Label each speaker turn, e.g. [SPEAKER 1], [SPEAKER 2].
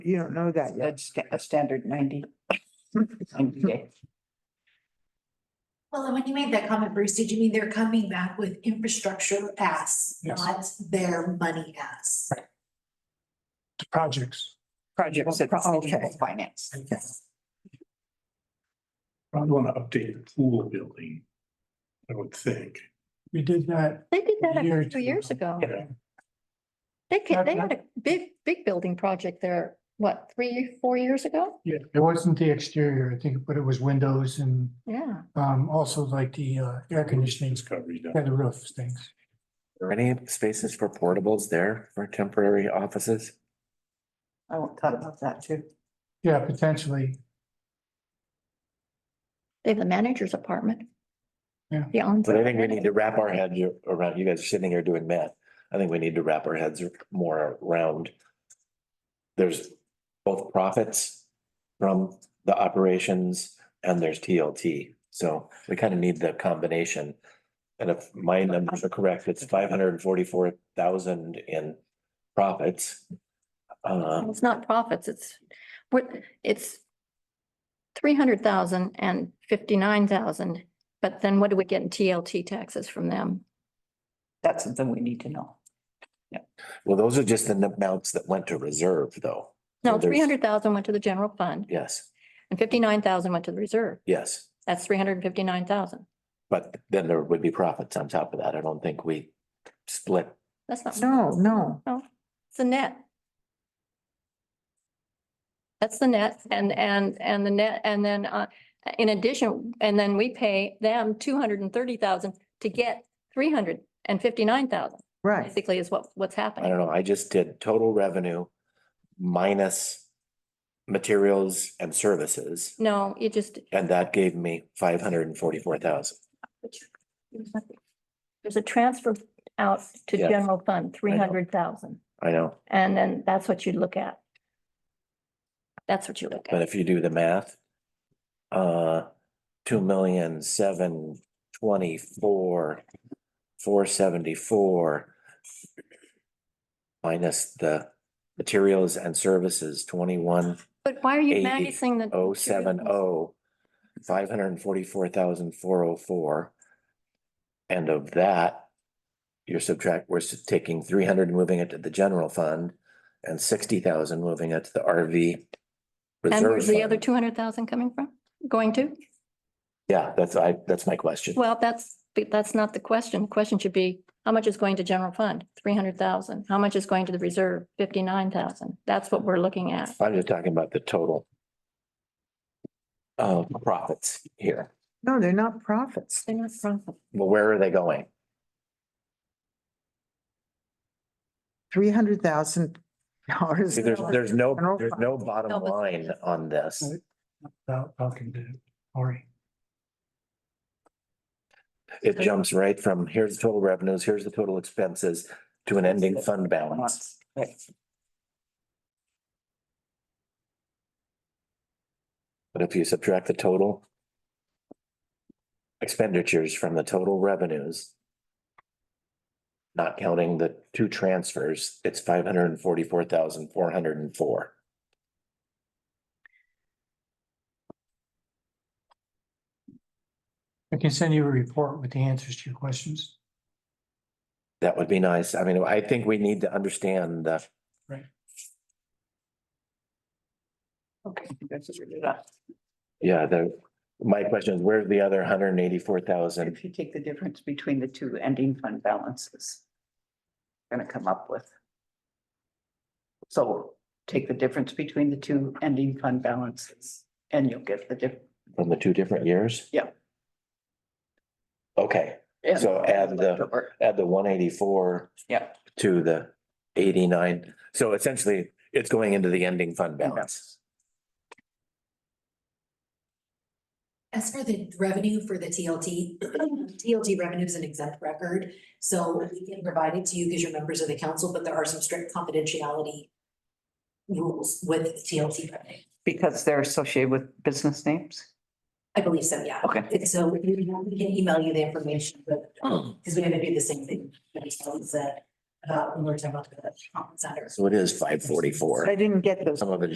[SPEAKER 1] You don't know that yet.
[SPEAKER 2] That's sta- a standard ninety.
[SPEAKER 3] Hmm.
[SPEAKER 2] 90 days.
[SPEAKER 4] Well, and when you made that comment, Bruce, did you mean they're coming back with infrastructure ass,
[SPEAKER 5] Yes.
[SPEAKER 4] not their money ass?
[SPEAKER 5] the projects.
[SPEAKER 2] Projects that the city
[SPEAKER 1] Okay.
[SPEAKER 2] will finance.
[SPEAKER 6] Probably want to update the pool building, I would think.
[SPEAKER 5] We did that.
[SPEAKER 7] They did that
[SPEAKER 5] a year or
[SPEAKER 7] a
[SPEAKER 5] two
[SPEAKER 7] two years ago.
[SPEAKER 5] Yeah.
[SPEAKER 7] They ca- they
[SPEAKER 5] Yeah.
[SPEAKER 7] had a big, big building project there, what, three, four years ago?
[SPEAKER 5] Yeah, it wasn't the exterior, I think, but it was windows and
[SPEAKER 7] Yeah.
[SPEAKER 5] um also like the uh air conditioning,
[SPEAKER 6] It's got redone.
[SPEAKER 5] yeah, the roof things.
[SPEAKER 3] Are any spaces for portables there for temporary offices?
[SPEAKER 2] I won't thought about that too.
[SPEAKER 5] Yeah, potentially.
[SPEAKER 7] They have the manager's apartment.
[SPEAKER 5] Yeah.
[SPEAKER 7] The
[SPEAKER 3] But I think we
[SPEAKER 7] onsite.
[SPEAKER 3] need to wrap our head you- around, you guys are sitting here doing math. I think we need to wrap our heads more around. There's both profits from the operations and there's TLT. So we kind of need the combination. And if my numbers are correct, it's five hundred and forty-four thousand in profits. Uh,
[SPEAKER 7] It's not profits, it's, what, it's three hundred thousand and fifty-nine thousand, but then what do we get in TLT taxes from them?
[SPEAKER 2] That's something we need to know.
[SPEAKER 3] well, those are just the amounts that went to reserve though.
[SPEAKER 7] No,
[SPEAKER 3] So there's-
[SPEAKER 7] three hundred thousand went to the general fund
[SPEAKER 3] Yes,
[SPEAKER 7] and fifty-nine thousand went to the reserve.
[SPEAKER 3] yes.
[SPEAKER 7] That's three hundred and fifty-nine thousand.
[SPEAKER 3] But then there would be profits on top of that. I don't think we split.
[SPEAKER 7] That's not.
[SPEAKER 1] No, no.
[SPEAKER 7] It's the net. That's the net and, and, and the net, and then, uh, in addition, and then we pay them two hundred and thirty thousand to get three hundred and fifty-nine thousand,
[SPEAKER 1] Right.
[SPEAKER 7] basically is what, what's
[SPEAKER 3] I
[SPEAKER 7] happening.
[SPEAKER 3] don't know. I just did total revenue minus materials and services,
[SPEAKER 7] No, you just,
[SPEAKER 3] and that gave me five hundred and forty-four thousand.
[SPEAKER 7] there's a transfer out to
[SPEAKER 3] Yes.
[SPEAKER 7] general fund, three
[SPEAKER 3] know.
[SPEAKER 7] hundred thousand,
[SPEAKER 3] I know,
[SPEAKER 7] and then that's what you look at. That's what you look
[SPEAKER 3] but
[SPEAKER 7] at.
[SPEAKER 3] if you do the math, uh, two million, seven, twenty-four, four seventy-four minus the materials and services, twenty-one,
[SPEAKER 7] But why are you
[SPEAKER 3] eight-
[SPEAKER 7] minusing the?
[SPEAKER 3] oh seven oh, five hundred and forty-four thousand four oh four. And of that, you're subtract, we're s- taking three hundred and moving it to the general fund and sixty thousand moving it to the RV.
[SPEAKER 7] And
[SPEAKER 3] reserve
[SPEAKER 7] where's the other
[SPEAKER 3] fund.
[SPEAKER 7] two hundred thousand coming from, going to?
[SPEAKER 3] Yeah, that's I, that's my question.
[SPEAKER 7] Well, that's, but that's not the question. The question should be, how much is going to general fund? Three hundred thousand. How much is going to the reserve? Fifty-nine thousand. That's what we're looking at.
[SPEAKER 3] I'm just talking about the total. Uh, profits here.
[SPEAKER 1] No, they're not profits.
[SPEAKER 7] They're not profit.
[SPEAKER 3] Well, where are they going?
[SPEAKER 1] Three hundred thousand dollars.
[SPEAKER 3] See, there's, there's no,
[SPEAKER 1] General
[SPEAKER 3] there's
[SPEAKER 1] fund.
[SPEAKER 3] no bottom
[SPEAKER 7] No, but-
[SPEAKER 3] line on this.
[SPEAKER 5] About talking to Ori.
[SPEAKER 3] It jumps right from here's the total revenues, here's the total expenses to an ending fund balance.
[SPEAKER 2] Months. Right.
[SPEAKER 3] But if you subtract the total expenditures from the total revenues, not counting the two transfers, it's five hundred and forty-four thousand, four hundred and four.
[SPEAKER 5] I can send you a report with the answers to your questions.
[SPEAKER 3] That would be nice. I mean, I think we need to understand the,
[SPEAKER 2] Okay, that's what we're doing.
[SPEAKER 3] yeah, the, my question is where's the other hundred and eighty-four thousand?
[SPEAKER 2] If you take the difference between the two ending fund balances. Gonna come up with. So take the difference between the two ending fund balances and you'll get the diff.
[SPEAKER 3] From the two different years?
[SPEAKER 2] Yeah.
[SPEAKER 3] Okay, So add the- add the one eighty-four
[SPEAKER 2] Yeah,
[SPEAKER 3] to the eighty-nine. So essentially, it's going into the ending fund balance.
[SPEAKER 4] As for the revenue for the TLT, TLT revenue is an exempt record, so we can provide it to you because you're members of the council, but there are some strict confidentiality rules with TLT revenue.
[SPEAKER 2] because they're associated with business names.
[SPEAKER 4] I believe so, yeah.
[SPEAKER 2] Okay.
[SPEAKER 4] And so we we can email you the information, but, um,
[SPEAKER 3] Hmm.
[SPEAKER 4] because we're gonna do the same thing, that we told uh, us that, about, when we we're talking about the conference center.
[SPEAKER 3] So it is five forty-four.
[SPEAKER 1] I didn't get those.
[SPEAKER 3] Some of it